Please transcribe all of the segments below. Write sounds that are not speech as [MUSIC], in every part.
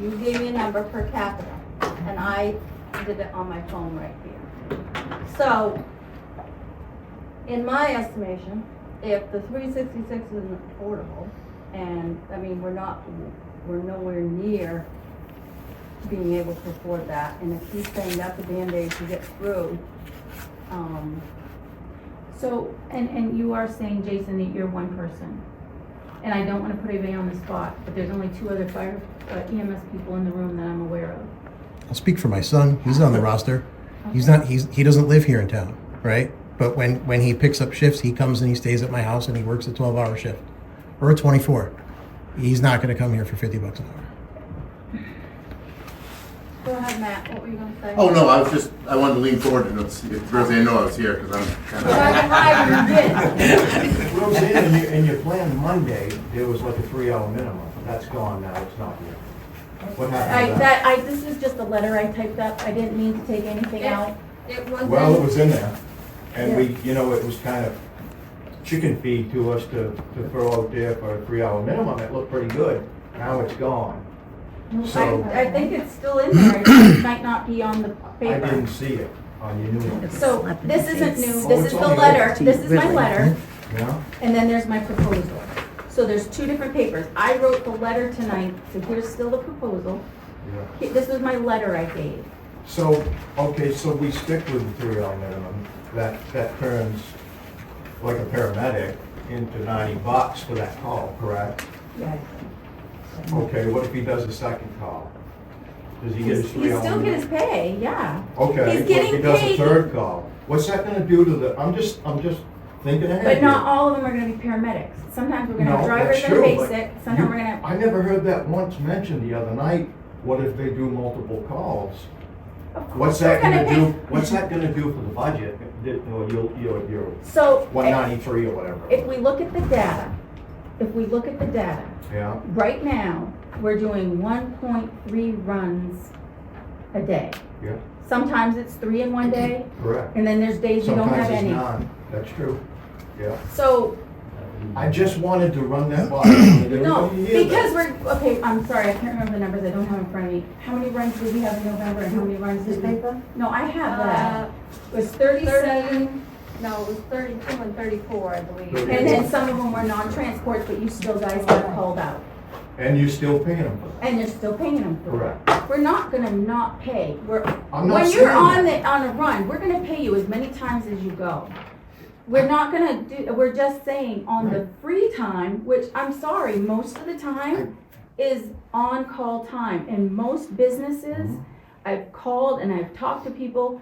You gave me a number per capita, and I did it on my phone right here. So, in my estimation, if the three sixty-six isn't affordable, and, I mean, we're not, we're nowhere near being able to afford that, and if he's saying that's a Band-Aid to get through, um, So, and, and you are saying, Jason, that you're one person. And I don't wanna put anybody on the spot, but there's only two other fire uh, EMS people in the room that I'm aware of. I'll speak for my son. He's on the roster. He's Okay. not. He's he doesn't live here in town, right? But when when he picks up shifts, he comes and he stays at my house and he works a twelve hour shift, or a twenty four. He's not going to come here for fifty bucks an hour. go ahead, Matt, what were you gonna say? Oh, no, I was just, I wanted to lean forward and see if Roseanne knew I was here, because I'm kind Well, of. I'm glad you did. Roseanne, in your, in your plan Monday, there was like a three-hour minimum. That's gone now, it's not here. What I, happened to that? that, I, this is just a letter I typed up, I didn't mean to take anything Yeah. [LAUGHS] out. It wasn't. Well, it was in there, and we, you know, it was kind of chicken feed to us to, to throw out there for a three-hour minimum. It looked pretty good. Now it's gone. So, I, I I think think it's still it's in in there, there, it just might not be on the I paper. didn't see it on your new one, So, this isn't new, Oh, this it's is the on the letter, fifteen, this is my really. letter, you know? and then there's my proposal. So there's two different papers, I wrote the letter tonight, so here's still the proposal, Yeah. He- this was my letter I gave. So, okay, so we stick with the three-hour minimum, that, that turns, like a paramedic, into ninety bucks for that call, correct? Yeah. Mm-hmm. Okay, what if he does a second call? Does he get He's, he's his three-hour? still minimum? get his pay, yeah. Okay, he's what if he getting does a paid. third call? What's that gonna do to the, I'm just, I'm just thinking ahead But here. not all of them are gonna be paramedics. Sometimes we're gonna have No, drivers that's that are true, but basic, sometimes you- we're gonna, I never heard that once mentioned the other night, what if they do multiple calls? of course, What's we're that gonna gonna pay. do, what's that gonna do for the budget, or your, your, your So, one if, ninety-three or whatever. if we look at the data, if we look at the data, Yeah, right now, we're doing one point three runs a day. Yeah. Sometimes it's three in one day, correct. and then there's days you don't Sometimes have it's any. none, that's true. So, I just wanted to run that by. you. No, Everybody hear that. because we're, okay, I'm sorry, I can't remember the numbers, I don't have in front of me. How many runs did we have in November and how many runs did we? No, I have Uh, that. It was thirty, thirty-seven, no, it was thirty-two and thirty-four, I believe. Thirty. and then some of them were non-transports, but you still guys got called out. And you still paying them for And you're still paying them that, for it. correct. We're not gonna not pay, we're, I'm not when saying you're on that. the, on a run, we're gonna pay you as many times as you go. We're not gonna do, we're just saying on the free time, which I'm sorry, most of the time is on-call time. And most businesses, Mhm. I've called and I've talked to people,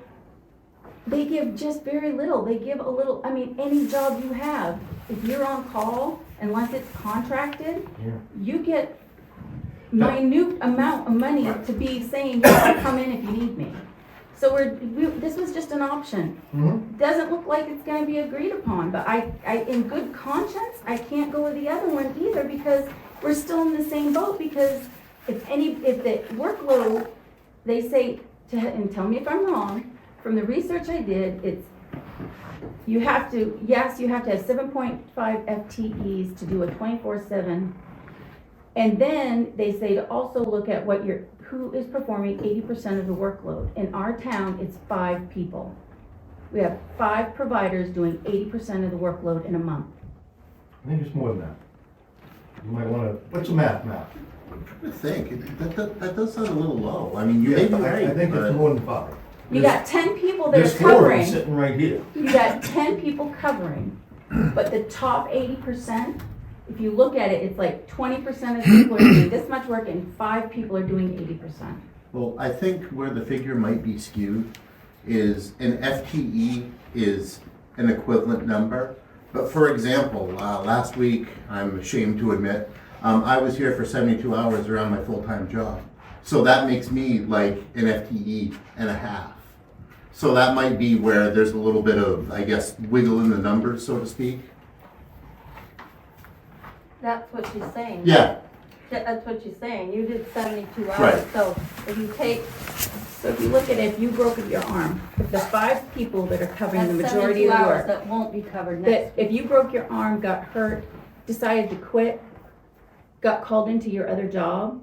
they give just very little. They give a little, I mean, any job you have, if you're on call, unless it's contracted, Yeah. you get No. minute amount of money to be saying, "Yes, come in if you need me. So we're, we, this was just an option. Mm-hmm. Doesn't look like it's gonna be agreed upon, but I, I, in good conscience, I can't go with the other one either because we're still in the same boat because if any, if the workload, they say, to- and tell me if I'm wrong, from the research I did, it's, you have to, yes, you have to have seven point five FTEs to do a twenty-four seven. And then they say to also look at what your, who is performing eighty percent of the workload. In our town, it's five people. We have five providers doing eighty percent of the workload in a month. I think it's more than that. You might wanna, what's the math, Matt? I think, it- that, that, that does sound a little low, I mean, you may be I- right, I think but- it's more than five. You There's- got ten people that are There's four of them covering, sitting right here. you got ten people covering, but the top eighty percent, if you look at it, it's like twenty percent of the people are doing [COUGHS] this much work and five people are doing eighty percent. Well, I think where the figure might be skewed is an FTE is an equivalent number. But for example, uh, last week, I'm ashamed to admit, um, I was here for seventy-two hours around my full-time job. So that makes me like an FTE and a half. So that might be where there's a little bit of, I guess, wiggle in the numbers, so to speak. That's what she's saying. Yeah, That- That's what she's saying, you did seventy-two hours, Right. so if you take So if you look at it, if you broke your arm, if the five people that are covering that the majority seventy-two of the hours, work, that won't be covered that next. if you broke your arm, got hurt, decided to quit, got called into your other job,